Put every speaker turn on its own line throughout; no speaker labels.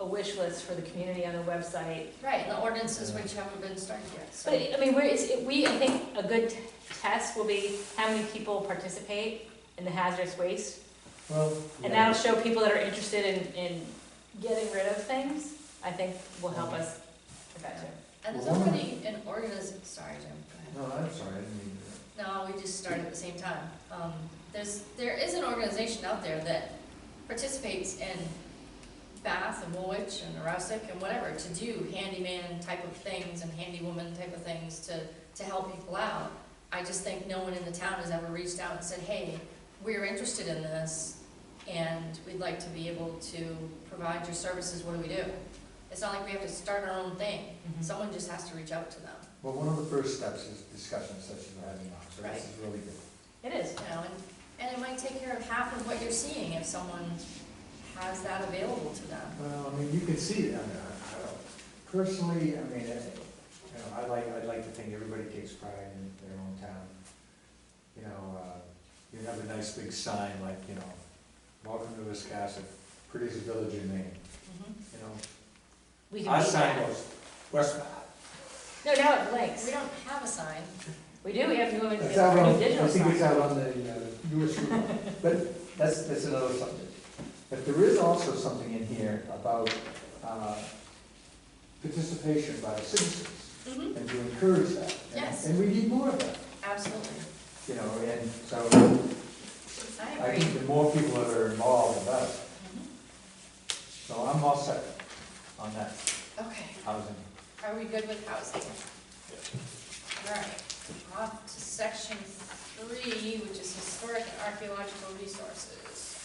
wish list for the community on the website.
Right, the ordinances which haven't been started yet, so.
But, I mean, we're, it's, it- we, I think a good t- test will be how many people participate in the hazardous waste.
Well,
And that'll show people that are interested in, in getting rid of things, I think will help us with that too.
And there's already an organiz, sorry, Jim, go ahead.
no, I'm sorry, I didn't mean to.
No, we just started at the same time. Um, there's, there is an organization out there that participates in Bath and Woolwich and Aroostook and whatever to do handyman type of things and handywoman type of things to, to help people out. I just think no one in the town has ever reached out and said, hey, we're interested in this and we'd like to be able to provide your services, what do we do? It's not like we have to start our own thing.
Mm-hmm.
Someone just has to reach out to them.
Well, one of the first steps is discussions such as we're having now, so this is really good.
It is.
you know, and, and it might take care of half of what you're seeing if someone has that available to them.
Well, I mean, you can see, it. I mean, I, I don't, personally, I mean, I, you know, I like, I'd like to think everybody takes pride in their own town. You know, uh, you have a nice big sign like, you know, welcome to Wiscasset, prettiest village in Maine,
Mm-hmm.
you know?
We can
Our
make
sign
that.
goes, West,
No, now it
We
blinks.
don't have a sign.
We do, we have to go into
It's out on,
a
I
digital
think it's
sign.
out on the uh, newest route, but that's, that's another subject. But there is also something in here about uh, participation by citizens
Mm-hmm.
and to encourage that. And-
Yes.
And we need more of that,
Absolutely.
you know, and so
I
I
agree.
think the more people that are involved, the better.
Mhm.
So I'm all set on that
Okay,
housing.
are we good with housing? All right, off to section three, which is historic and archaeological resources.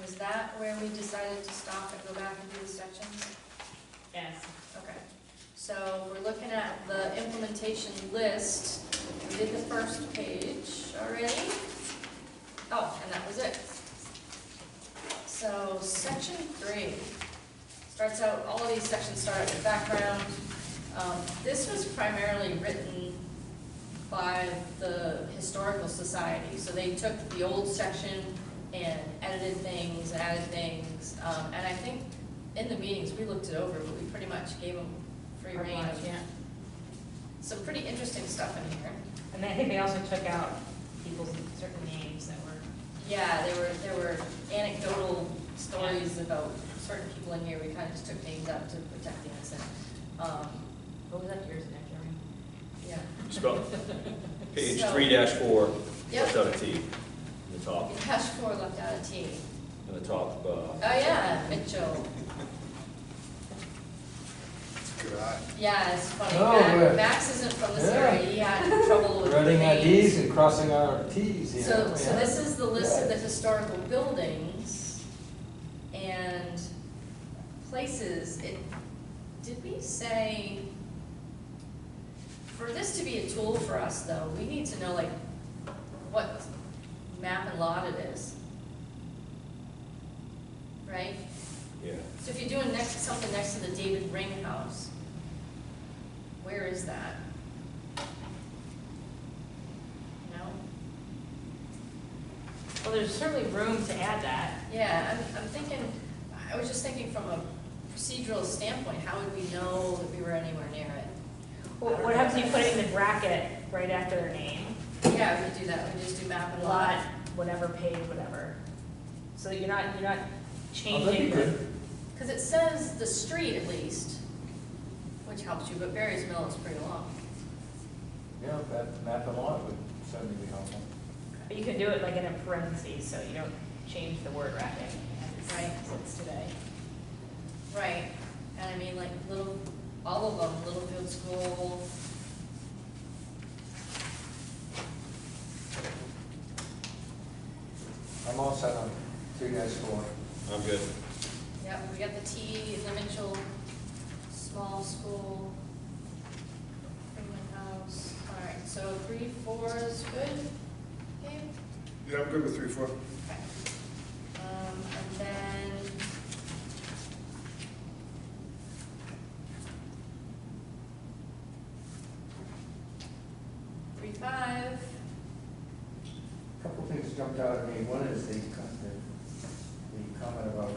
Was that where we decided to stop and go back and do the sections?
Yes.
Okay, so we're looking at the implementation list. We did the first page already. Oh, and that was it. So section three starts out, all of these sections start at the background. Um, This was primarily written by the Historical Society, so they took the old section and edited things, added things. Um, And I think in the meetings, we looked it over, but we pretty much gave them free rein of
Yeah.
some pretty interesting stuff in here.
And then I think they also took out people's certain names that were.
Yeah, there were, there were anecdotal stories about certain people in here, we kind of just took names out to protect the innocent. Um,
What was that yours, Jeremy?
Yeah,
Scroll. Page
So-
three dash four,
Yep.
left out a T, in the top,
the cash four left out a T.
in the top,
Oh,
uh,
yeah, Mitchell. Yeah, it's funny,
Oh,
Max,
good.
Max isn't from this
Yeah.
area, he had trouble with the
Running our
names.
Ds and crossing our Ts here.
So, so
yeah.
this is the list of the
Yeah.
historical buildings and places. It, did we say, for this to be a tool for us though, we need to know like what map and lot it is. Right?
yeah.
So if you're doing next, something next to the David Ring House, where is that? No?
Well, there's certainly room to add that.
Yeah, I'm, I'm thinking, I was just thinking from a procedural standpoint, how would we know that we were anywhere near it?
What what happens if you put it in the bracket right after their name?
Yeah, we could do that, we just do map and
Lot,
lot.
whatever page, whatever. So that you're not, you're not
Oh, that'd
changing
be
the.
good.
Because it says the street at least, which helps you, but Barry's Mill is pretty long.
Yeah, that map and lot would certainly be helpful.
But you can do it like in a parentheses, so you don't change the word wrapping as it
Right.
sits today.
Right. And I mean, like, little, all of them, Littlefield School.
I'm all set on three dash four.
I'm good.
Yep, we got the T in the Mitchell, small school, Freeman House. All right, so three, four is good, okay?
Yeah, I'm good with three, four.
Okay. Um, and then. Three, five.
Couple things jumped out at me. One is the